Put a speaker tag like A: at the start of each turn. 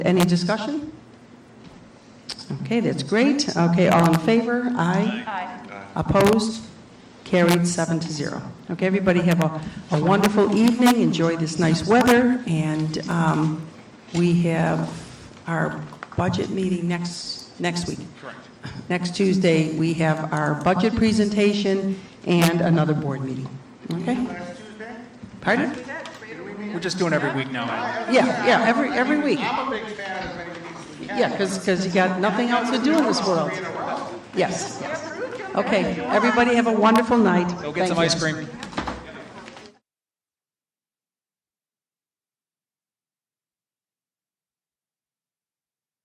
A: Any discussion? Okay, that's great. Okay, all in favor? Aye. Aye. Opposed? Carried seven to zero. Okay, everybody have a a wonderful evening, enjoy this nice weather, and um, we have our budget meeting next, next week. Correct. Next Tuesday, we have our budget presentation and another board meeting. Okay? Pardon?
B: We're just doing every week now. anyway.
A: Yeah, yeah, every, every week. Yeah, because, you got nothing else to do in this world. Yes. Okay, everybody have a wonderful night.
B: Go get some ice cream.